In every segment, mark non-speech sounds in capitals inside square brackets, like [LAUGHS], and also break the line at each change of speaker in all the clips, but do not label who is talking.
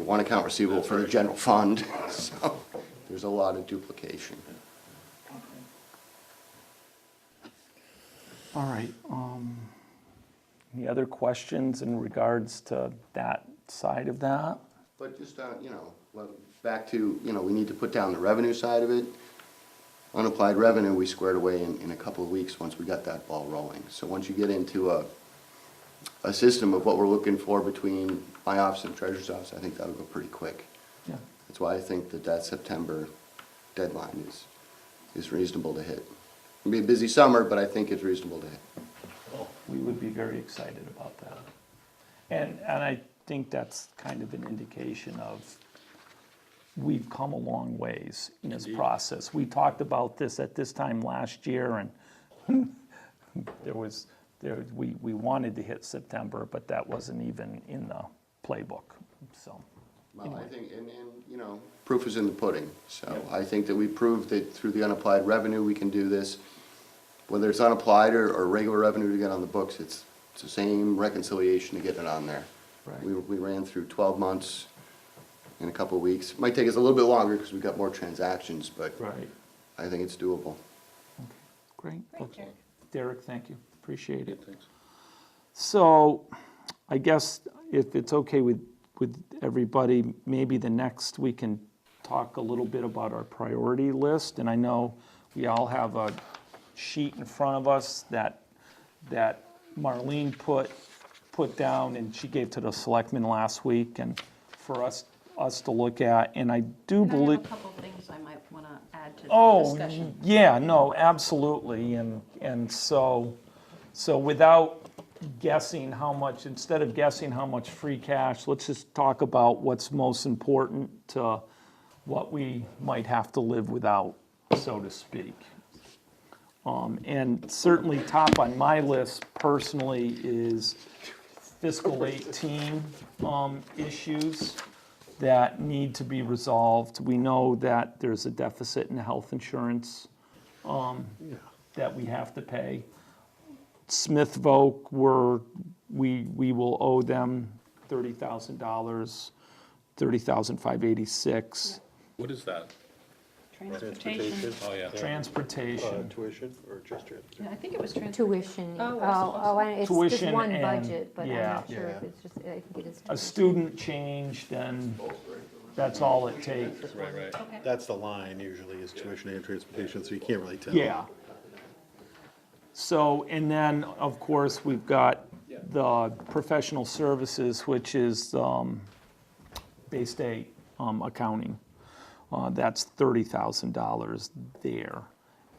one account receivable for the general fund, [LAUGHS] so there's a lot of duplication.
All right, um,
Any other questions in regards to that side of that?
But just, uh, you know, well, back to, you know, we need to put down the revenue side of it. Unapplied revenue, we squared away in, in a couple of weeks, once we got that ball rolling. So once you get into a, a system of what we're looking for between my office and treasurer's office, I think that'll go pretty quick.
Yeah.
That's why I think that that September deadline is, is reasonable to hit. It'll be a busy summer, but I think it's reasonable to hit.
We would be very excited about that. And, and I think that's kind of an indication of, we've come a long ways in this process. We talked about this at this time last year, and [LAUGHS] there was, there, we, we wanted to hit September, but that wasn't even in the playbook, so.
Well, I think, and, and, you know, proof is in the pudding. So I think that we proved that through the unapplied revenue, we can do this. Whether it's unapplied or, or regular revenue to get on the books, it's, it's the same reconciliation to get it on there.
Right.
We, we ran through twelve months in a couple of weeks. Might take us a little bit longer because we've got more transactions, but
Right.
I think it's doable.
Great.
Thank you.
Derek, thank you, appreciate it.
Thanks.
So I guess if it's okay with, with everybody, maybe the next, we can talk a little bit about our priority list. And I know we all have a sheet in front of us that, that Marlene put, put down and she gave to the selectmen last week and for us, us to look at. And I do
And I have
believe.
a couple things I might want to add to the
Oh,
discussion.
yeah, no, absolutely, and, and so, so without guessing how much, instead of guessing how much free cash, let's just talk about what's most important to what we might have to live without, so to speak. Um, and certainly top on my list personally is fiscal eighteen, um, issues that need to be resolved. We know that there's a deficit in health insurance um, that we have to pay. Smith Voc, we're, we, we will owe them $30,000, 30586
What is that?
Transportation.
Oh, yeah.
Transportation,
Uh, Tuition or just transportation?
Yeah, I think it was trans,
Tuition,
Oh,
oh,
that's
oh, I- it's just
Tuition
one
and-
budget, but I'm
yeah.
not sure if
Yeah.
it's just, I think it is.
a
tuition.
student change, then that's all it takes.
Right, right.
okay.
That's the line usually is tuition and transportation, so you can't really tell.
Yeah. So, and then, of course, we've got the professional services, which is um, Bay State um, accounting. Uh, That's $30,000 there.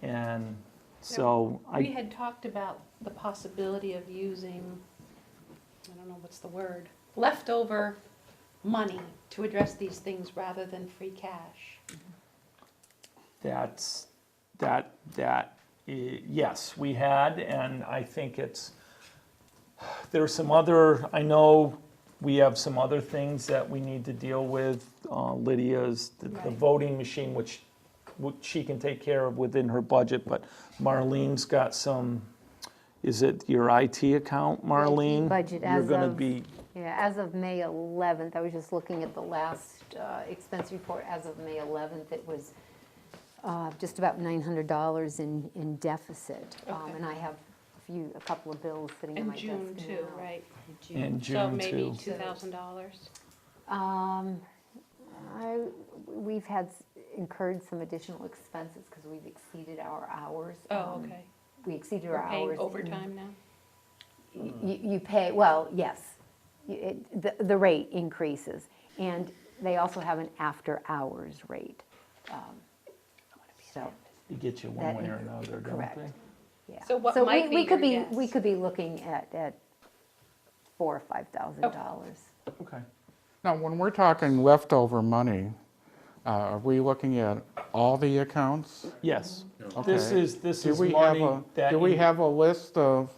And so
We
I,
had talked about the possibility of using, I don't know what's the word, leftover money to address these things rather than free cash.
that's, that, that, i- yes, we had, and I think it's, there are some other, I know we have some other things that we need to deal with. Uh, Lydia's, the- the
Right.
voting machine, which, which she can take care of within her budget, but Marlene's got some, is it your IT account, Marlene?
budget
You're
as
gonna
of-
be,
Yeah, as of May 11th, I was just looking at the last uh, expense report, as of May 11th, it was uh, just about $900 in, in deficit. Um,
Okay.
And I have a few, a couple of bills sitting on
In
my desk now.
June too, right?
in
So
June
maybe
too.
two thousand dollars?
Um, I, we've had s- incurred some additional expenses because we've exceeded our hours.
Oh,
Um,
okay.
We exceeded our
We're
hours.
paying
in-
overtime now?
y- you pay, well, yes, You- it- the the rate increases. And they also have an after-hours rate. Um, So,
They get you one
That-
way or another, don't they?
correct. yeah.
So what
we-
might be
we could
your
We
guess?
could be looking at, at four or $5,000.
Okay.
Now, when we're talking leftover money, uh, are we looking at all the accounts?
Yes. This
Okay.
is, this
Do
is
we have
money
a,
that.
do we
you-
have a list of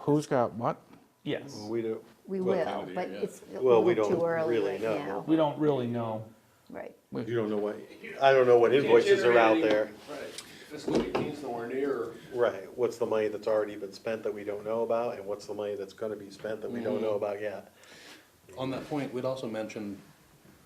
who's got what?
Yes.
Well, We do,
We
Well,
will,
Kennedy,
but
yeah.
it's a
Well, we
little too
don't
early
really
right
know.
now.
We don't really know.
Right.
you don't know what, I don't know what invoices are out there.
Right, fiscal eighteen's nowhere near,
Right, what's the money that's already been spent that we don't know about, and what's the money that's gonna be spent that we don't know about yet?
On that point, we'd also mentioned